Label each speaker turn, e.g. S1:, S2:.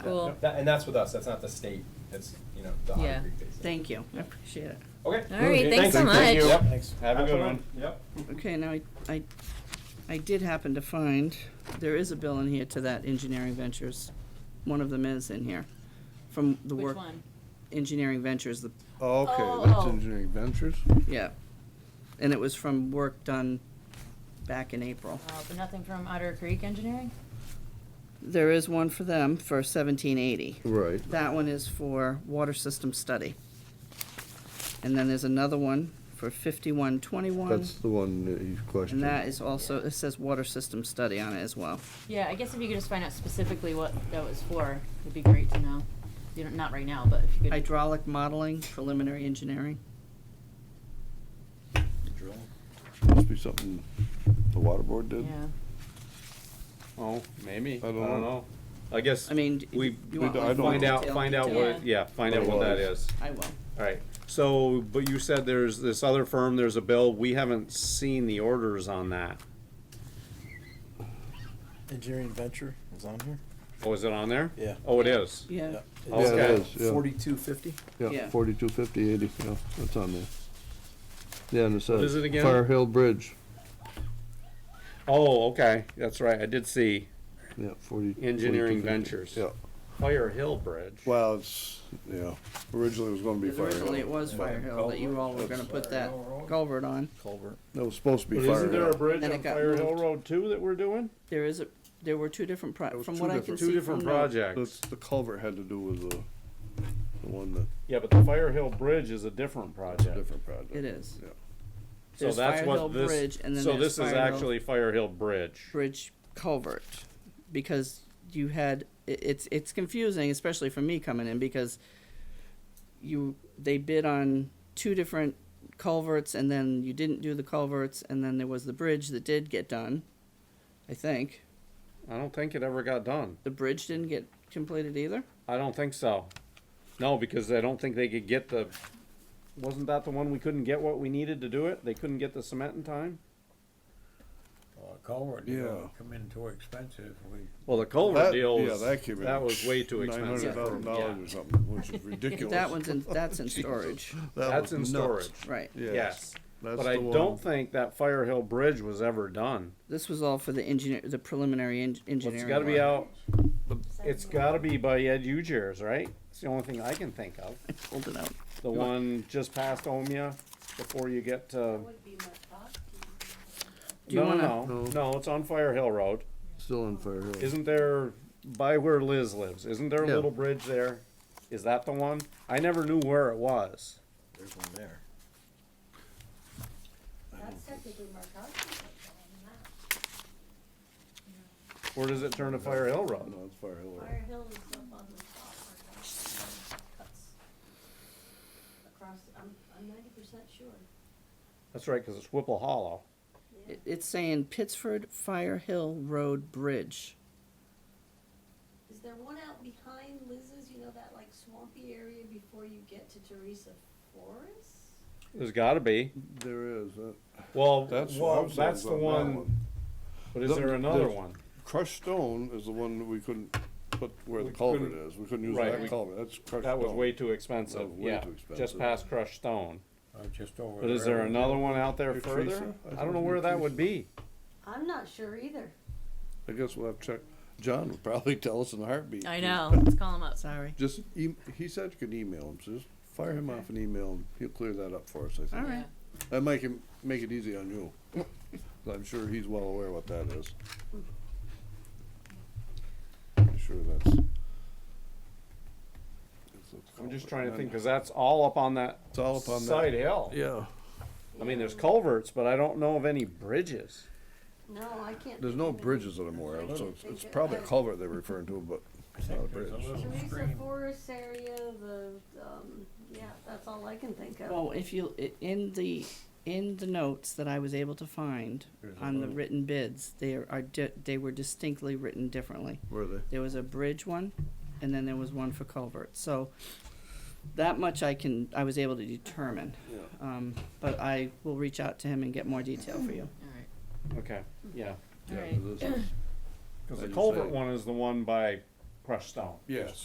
S1: Cool.
S2: That- And that's with us, that's not the state, that's, you know, the
S1: Yeah.
S2: Otter Creek basin.
S3: Thank you, I appreciate it.
S2: Okay.
S1: All right, thanks so
S4: Thank you.
S1: much.
S4: Yep.
S5: Thanks.
S4: Have a good one.
S2: Yep.
S3: Okay, now I, I, I did happen to find, there is a bill in here to that Engineering Ventures. One of them is in here, from the work.
S1: Which one?
S3: Engineering Ventures, the,
S1: Oh,
S6: Okay, that's
S1: oh.
S6: engineering ventures.
S3: yeah. And it was from work done back in April.
S1: Oh, but nothing from Otter Creek Engineering?
S3: There is one for them for seventeen eighty.
S6: Right.
S3: That one is for water system study. And then there's another one for fifty-one twenty-one,
S6: That's the one that you
S3: and
S6: questioned.
S3: that is also, it says water system study on it as well.
S1: Yeah, I guess if you could just find out specifically what that was for, it'd be great to know. You know, not right now, but if you could.
S3: Hydraulic modeling, preliminary engineering.
S6: Must be something the water board did.
S1: Yeah.
S4: Oh, maybe. I
S6: don't
S4: don't
S6: know.
S4: know. I guess
S3: I mean, d-
S4: we,
S3: you
S4: we
S3: want like more
S4: find out,
S3: detail-
S4: find out what, yeah, find out what that is.
S3: I will.
S4: All right. So, but you said there's this other firm, there's a bill. We haven't seen the orders on that.
S5: Engineering Venture is on here?
S4: Oh, is it on there?
S5: Yeah.
S4: Oh, it is.
S3: Yeah,
S6: Yeah, it
S4: Oh, Okay.
S6: is, yeah.
S5: Forty-two fifty?
S6: Yeah,
S3: Yeah.
S6: forty-two fifty eighty, yeah, that's on there. Yeah, and it says.
S4: is it again?
S6: Fire Hill Bridge,
S4: Oh, okay. That's right. I did see
S6: yeah, forty. 4250.
S4: Engineering Ventures.
S6: Yeah,
S4: Fire Hill Bridge.
S6: well, it's, yeah, originally it was gonna be
S3: because
S6: Fire
S3: originally it
S6: Hill.
S3: was Fire Hill that you all were gonna put that culvert on.
S5: Culvert.
S6: It was supposed to be Fire Hill.
S4: bridge
S3: Then it got moved.
S4: Road too that we're doing?
S3: There is a, there were two different
S6: It
S3: pro,
S6: was
S3: from
S6: two
S3: what I can
S6: different-
S3: see.
S4: Two different
S3: from the-
S4: projects.
S6: The, the culvert had to do with the, the one that,
S4: Yeah, but the Fire Hill Bridge is a different project.
S6: different project.
S3: It is.
S6: Yeah.
S4: So
S3: There's
S4: that's
S3: Fire Hill
S4: what this,
S3: Bridge, and then
S4: so
S3: there's
S4: this is
S3: Fire Hill-
S4: actually Fire Hill Bridge.
S3: Bridge culvert, because you had, i it's, it's confusing, especially for me coming in, because you, they bid on two different culverts, and then you didn't do the culverts, and then there was the bridge that did get done, I think.
S4: I don't think it ever got done.
S3: The bridge didn't get completed either?
S4: I don't think so. No, because I don't think they could get the, wasn't that the one we couldn't get what we needed to do it? They couldn't get the cement in time?
S7: Well, a culvert, you
S6: Yeah.
S7: know, come in too expensive, we,
S4: Well, the
S6: That-
S4: culvert deal
S6: yeah,
S4: was,
S6: that came in
S4: that was way too
S6: Nine
S4: expensive. for-
S6: hundred thousand
S4: yeah.
S6: dollars or something, which is ridiculous.
S3: That one's in, that's in storage,
S6: That
S4: That's
S6: was
S4: in
S6: nuts.
S4: storage,
S3: right.
S6: Yeah.
S4: yes.
S6: That's
S4: But I
S6: the
S4: don't
S6: one.
S4: think that Fire Hill Bridge was ever done.
S3: This was all for the engineer, the preliminary en-
S4: Well, It's
S3: engineering.
S4: gotta be
S3: one.
S4: out, it's gotta be by Ed Ujares, right? It's the only thing I can think of.
S3: Hold it out.
S4: The one just past Omea, before you get to,
S3: Do you
S4: no,
S3: wanna-
S4: no, no, no, it's on Fire Hill Road.
S6: Still on Fire Hill.
S4: Isn't there, by where Liz lives, isn't there a
S6: Yeah.
S4: little bridge there? Is that the one? I never knew where it was.
S5: There's one there.
S8: That's technically Markowski, that's
S4: Where does it turn to Fire Hill Road?
S6: No, it's Fire Hill.
S8: on that. Fire Hill is up on the top, Markowski cuts across, I'm, I'm ninety percent sure.
S4: That's right, cause it's Whipple Hollow.
S3: It- It's saying Pittsford Fire Hill Road Bridge.
S8: Is there one out behind Liz's, you know, that like swampy area before you get to Teresa Forest?
S4: There's gotta be.
S6: There is, uh,
S4: Well,
S6: That's what I
S4: well,
S6: was saying
S4: that's the
S6: about that
S4: one,
S6: one.
S4: but is
S6: The-
S4: there another
S6: the-
S4: one?
S6: crushed stone is the one that we couldn't put where the
S4: We
S6: culvert
S4: couldn't-
S6: is, we couldn't use
S4: right,
S6: that
S4: we-
S6: culvert, that's crushed stone.
S4: That was way too expensive,
S6: That was way
S4: yeah,
S6: too
S4: just
S6: expensive.
S4: past crushed stone.
S7: uh, just over.
S4: But is there another one out there
S6: Your
S4: further?
S6: Teresa? I
S4: I don't
S6: think
S4: know
S6: it's
S4: where
S6: your
S4: that would be.
S8: I'm not sure either.
S6: I guess we'll have to check, John would probably tell us in a heartbeat.
S1: I know, let's call him up.
S3: Sorry.
S6: Just, e- he said you could email him, so just fire him off an email, and he'll clear that up for us, I
S3: All
S6: think.
S3: right.
S6: That make him, make it easy on you, 'Cause I'm sure he's well aware what that is. I'm sure that's. that's a
S4: I'm
S6: culvert.
S4: just trying to think,
S6: And
S4: cause that's all up on that
S6: It's all up on that.
S4: side hill.
S6: Yeah,
S4: I mean, there's culverts, but I don't know of any bridges.
S8: No, I can't.
S6: there's
S8: think
S6: no
S8: of any.
S6: bridges that I'm aware of, so it's, it's probably a culvert they're referring to, but it's not a bridge.
S8: Teresa Forest area, the, um, yeah, that's all I can think of.
S3: Well, if you, i- in the, in the notes that I was able to find on the written bids, they are, di- they were distinctly written differently.
S6: Were they?
S3: There was a bridge one, and then there was one for culvert, so that much I can, I was able to determine. Um, but I will reach out to him and get more detail for you.
S1: Alright,
S4: Okay, yeah.
S6: Yeah,
S1: Alright.
S6: this is-
S4: Cause
S6: Like
S4: the
S6: you
S4: culvert
S6: say.
S4: one is the one by
S9: crushed stone.
S4: Yes.